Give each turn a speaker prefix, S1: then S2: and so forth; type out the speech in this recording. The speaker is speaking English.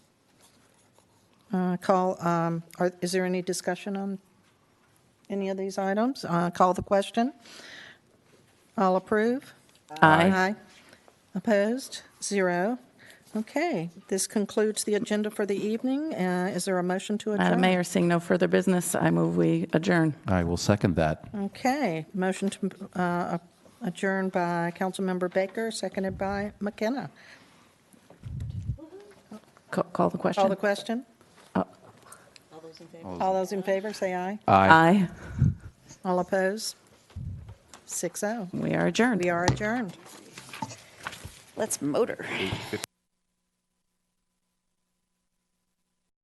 S1: Uh, Call, um, are- is there any discussion on any of these items? Uh, Call the question. All approve?
S2: Aye.
S1: Opposed? Zero. Okay, this concludes the agenda for the evening. Uh, Is there a motion to adjourn?
S2: Madam Mayor, seeing no further business, I move we adjourn.
S3: I will second that.
S1: Okay, motion to uh, adjourn by Councilmember Baker, seconded by McKenna.
S2: Ca- Call the
S1: Call the
S2: question.
S1: question. All those in favor, say aye.
S2: Oh. Aye.
S1: All opposed? Six oh.
S2: We are adjourned.
S1: We are adjourned.
S4: Let's motor.